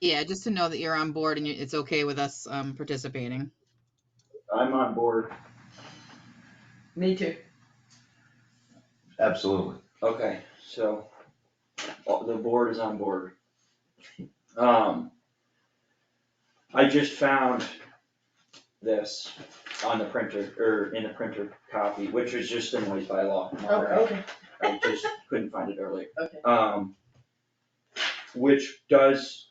Yeah, just to know that you're on board and you- it's okay with us um, participating. I'm on board. Me too. Absolutely. Okay, so, uh, the board is on board. Um, I just found this on the printer, or in the printer copy, which was just the noise by law. Okay, I just couldn't find it earlier. Okay. Um, which does,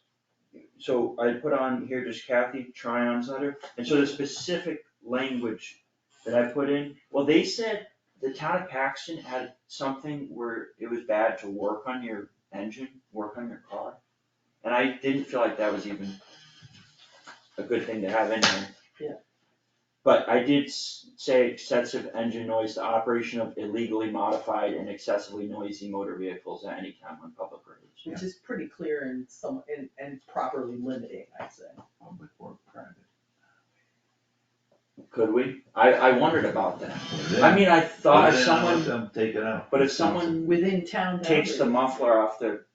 so I put on here just Kathy Tryon's letter, and so the specific language that I put in, well, they said the town of Paxton had something where it was bad to work on your engine, work on your car. And I didn't feel like that was even a good thing to have in here. Yeah. But I did s- say excessive engine noise, the operation of illegally modified and excessively noisy motor vehicles at any time on public roads. which is pretty clear and some, and, and properly limiting, I'd say. Public or private. Could we? I, I wondered about that. Put it I in. mean, I thought Put it if in and let someone, them Take it out. but if Mm. someone Within town takes the boundaries. muffler off their,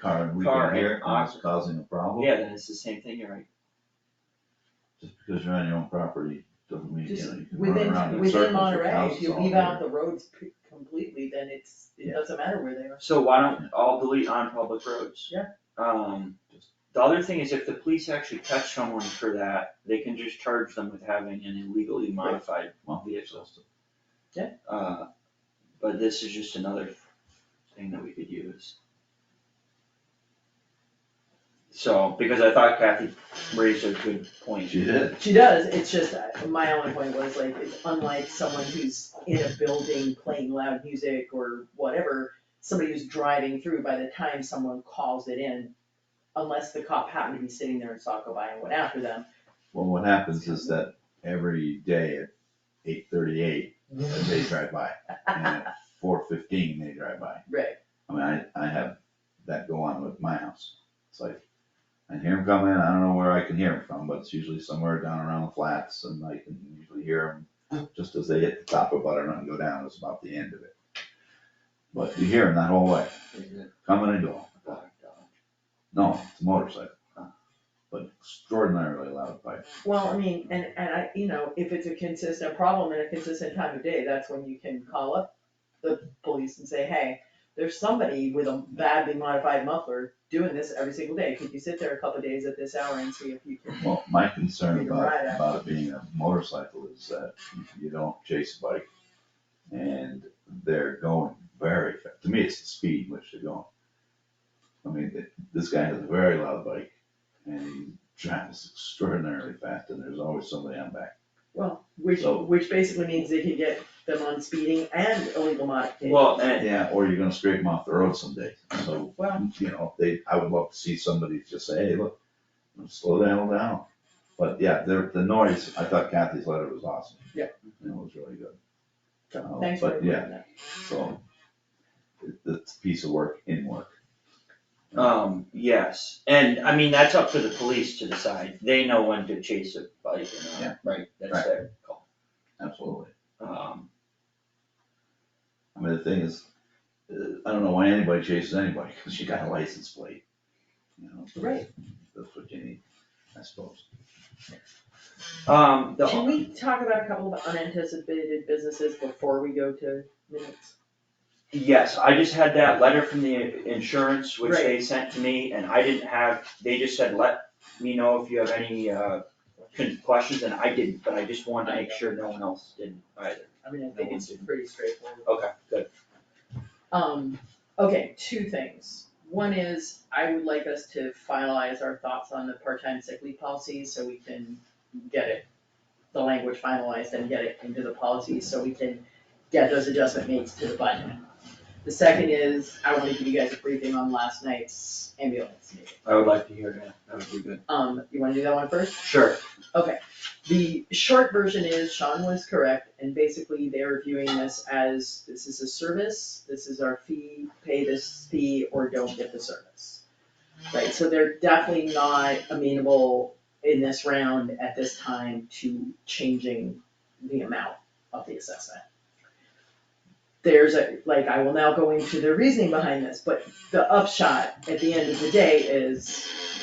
Car, and we Car can hear it, and and it's causing a problem. yeah, then it's the same thing, you're right. Just because you're on your own property, doesn't mean, you Just know, you can run around Within, in circles within with Monterey, if houses you all leave day. out the roads p- completely, then it's, it Yeah. doesn't matter where they are. So why don't all delete on public roads? Yeah. Um, the other thing is if the police actually catch someone for that, they can just charge them with having an illegally modified Well, vehicles. so- Uh, but this is just another thing that we could use. So, because I thought Kathy raised a good point. She did. She does, it's just, uh, my only point was like, it's unlike someone who's in a building playing loud music or whatever, somebody who's driving through, by the time someone calls it in, unless the cop happened to be sitting there and saw it go by and went after them, Well, what happens is that every day at eight thirty-eight, they drive by, and at four fifteen, they drive by. right, I mean, I, I have that go on with my house. It's like, I hear him coming, I don't know where I can hear him from, but it's usually somewhere down around the flats and I can usually hear him just as they hit the top of Butternut and go down, it's about the end of it. But you hear him that whole way, coming and going. No, it's a motorcycle. But extraordinarily loud pipe. well, I mean, and, and I, you know, if it's a consistent problem and a consistent time of day, that's when you can call up the police and say, hey, there's somebody with a badly modified muffler doing this every single day, could you sit there a couple of days at this hour and see if you can Well, my You concern can about, ride it. about it being a motorcycle is that you don't chase a bike and they're going very, fa- to me, it's the speed in which they're going. I mean, th- this guy has a very loud bike and he travels extraordinarily fast and there's always somebody on back. Well, which, So- which basically means they could get them on speeding and illegal modification. Well, and, Yeah, or you're gonna scrape them off the road someday, so, Well, you know, they, I would love to see somebody just say, hey, look, slow down, down. But yeah, the, the noise, I thought Kathy's letter was awesome. Yeah. And it was really good. Uh, thanks for But yeah, bringing that. so, it- it's a piece of work in work. um, yes, and I mean, that's up to the police to decide. They know when to chase a bike or Yeah. not, right? That's Right. their call. Absolutely. Um, I mean, the thing is, uh, I don't know why anybody chases anybody, because you got a license plate. You know, Right. that's what you need, I suppose. um, the. Can we talk about a couple of unanticipated businesses before we go to minutes? Yes, I just had that letter from the insurance, which they sent to me, and I didn't have, they just said, let me know if you have any, uh, con- questions, and I didn't, but I just wanted to make sure no one else didn't either. I mean, I think it's pretty straightforward. Okay, good. Um, okay, two things. One is, I would like us to finalize our thoughts on the part-time sick leave policy, so we can get it, the language finalized and get it into the policy, so we can get those adjustment made to the budget. The second is, I wanna give you guys a briefing on last night's ambulance meeting. I would like to hear that, that would be good. Um, you wanna do that one first? Sure, The short version is Sean was correct, and basically they are viewing this as, this is a service, this is our fee, pay this fee or don't get the service. Right, so they're definitely not amenable in this round at this time to changing the amount of the assessment. There's a, like, I will now go into the reasoning behind this, but the upshot at the end of the day is